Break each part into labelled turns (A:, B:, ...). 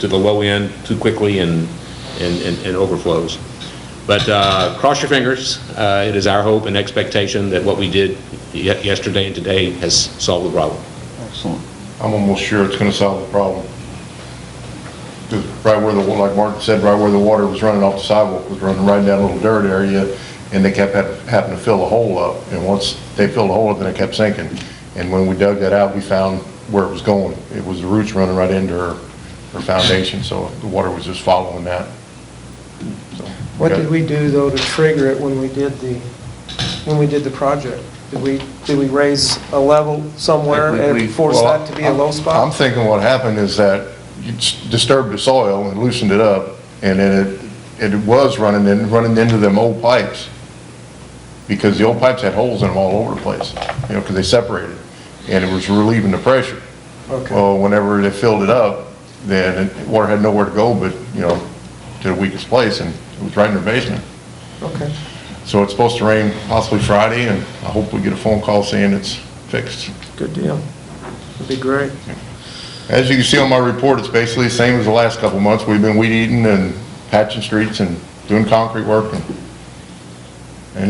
A: to the low end too quickly and, and, and- and overflows. But uh, cross your fingers, Uh, it is our hope and expectation that what we did ye- yesterday and today has solved the problem.
B: Excellent.
C: I'm almost sure it's gonna solve the problem. 'Cause right where the, like Martin said, right where the water was running off the sidewalk, was running right down a little dirt area, and they kept hap- having to fill the hole up, and once they filled the hole up, then it kept sinking. And when we dug that out, we found where it was going. It was the roots running right into her, her foundation, so the water was just following that. So,
D: What did we do, though, to trigger it when we did the, when we did the project? Did we, did we raise a level somewhere
B: Like we-
D: and force
C: Well,
D: that to be a low
C: I'm- I'm
D: spot?
C: thinking what happened is that you s- disturbed the soil and loosened it up, and then it, it was running in, running into them old pipes, because the old pipes had holes in them all over the place, you know, because they separated, and it was relieving the pressure.
D: Okay.
C: Well, whenever they filled it up, then it- water had nowhere to go but, you know, to the weakest place, and it was right in their basement.
D: Okay,
C: So it's supposed to rain possibly Friday, and I hope we get a phone call saying it's fixed.
D: good deal. That'd be great.
C: As you can see on my report, it's basically the same as the last couple of months. We've been weed eating and patching streets and doing concrete work and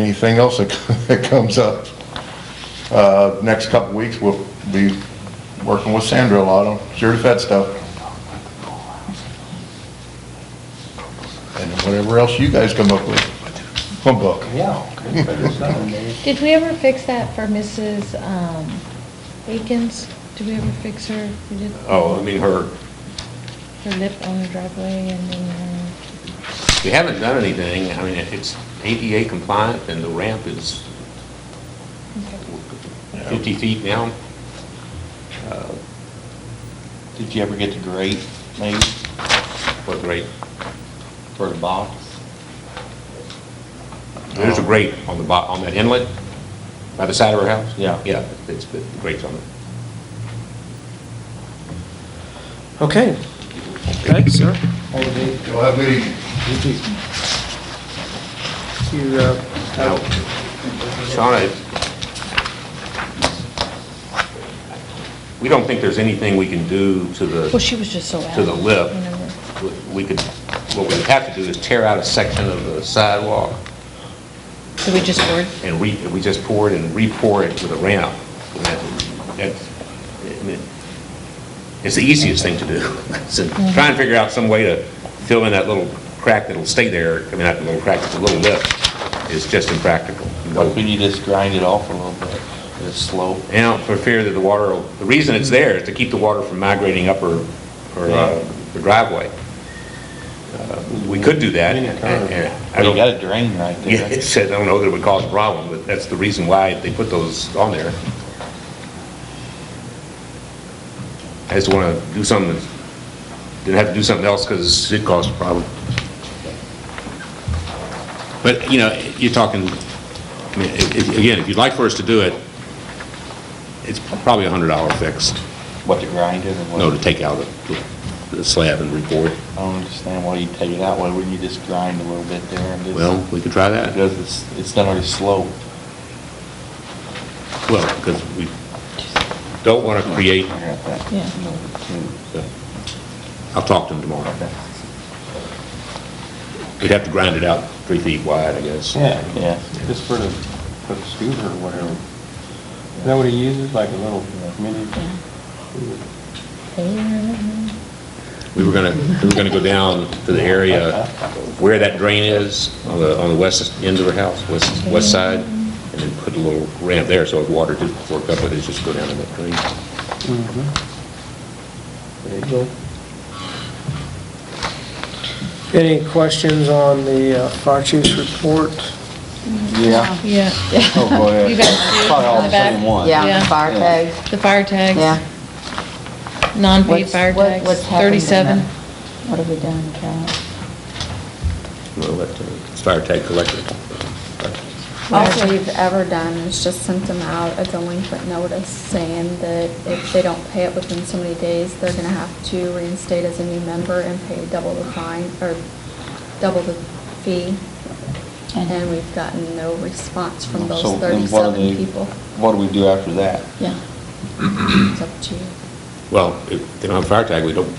C: anything else that that comes up. Uh, Next couple of weeks, we'll be working with Sandra a lot on Sure to Fed stuff. And whatever else you guys come up with. Humbug.
B: Yeah.
E: Did we ever fix that for Mrs. um, Akins? Did we ever fix her? We did
A: Oh, I mean, her,
E: her lip on the driveway and then,
A: we haven't done anything, I mean, it's ADA compliant and the ramp is
E: uh, okay.
A: 50 feet now.
B: Did you ever get the grate made
A: What great,
B: for the box?
A: there's a grate on the, bo- on that inlet by the side of her house?
B: Yeah.
A: Yeah, it's, the grate's on it.
D: Okay. Thanks, sir.
C: Y'all have a good evening.
D: You, uh,
A: Now, Shauna, we don't think there's anything we can do to
E: Well,
A: the,
E: she was just so out.
A: to the lip.
E: whenever-
A: We could, what we have to do is tear out a section of the sidewalk
E: Did we just board?
A: and re, we just pour it and re-pour it with a ramp. And that- That's, I mean, it's the easiest thing to do. So try and figure out some way to fill in that little crack that'll stay there, I mean, not the little crack, the little lip is just impractical.
B: Why couldn't you just grind it off a little bit, It's slow.
A: Now, for fear that the water, will- the reason it's there is to keep the water from migrating up or, or uh, the driveway. Uh, We could do that. and- and I
B: You
A: don't,
B: got a drain right
A: yeah,
B: there.
A: it said, I don't know that it would cause a problem, but that's the reason why they put those on there. I just want to do something, that- didn't have to do something else because it caused a problem. But, you know, you're talking, I mean, i- i- again, if you'd like for us to do it, it's probably a hundred dollar fix,
B: What, to grind it or what?
A: no, to take out the- the slab and report.
B: I don't understand why you take it out. Why wouldn't you just grind a little bit there and just?
A: Well, we could try that.
B: Because it's, it's not already slow.
A: Well, because we don't want to create
B: I got that.
E: Yeah.
A: So, I'll talk to him tomorrow. We'd have to grind it out three feet wide, I guess.
F: Yeah,
B: Yeah.
F: just for the, for the scooter or whatever. Is that what he uses, like a little mini?
A: We were gonna, we were gonna go down to the area where that drain is, on the, on the west end of her house, west, west side, and then put a little ramp there, so if water did fork up, it'd just go down in that drain.
D: There you go. Any questions on the uh, fire chief's report?
F: Yeah.
E: Yeah.
F: Oh, go ahead.
E: You guys see it
F: Probably all
E: on
F: the
E: the back?
F: same one.
E: Yeah.
G: Yeah, fire tag.
E: The fire tags.
G: Yeah.
E: Non-paid
G: What's-
E: fire
G: what-
E: tags,
G: what's happened in
E: thirty-seven.
G: that? What have we done, Charlie?
A: Well, let the fire tag collector.
H: All we've ever done is just sent them out a delinquent notice saying that if they don't pay it within so many days, they're gonna have to reinstate as a new member and pay double the fine, or double the fee. And we've gotten no response from those
B: So, then what do
H: thirty-seven
B: they-
H: people.
B: What do we do after that?
G: Yeah.
H: It's up to you.
A: Well, if they don't have a fire tag, we don't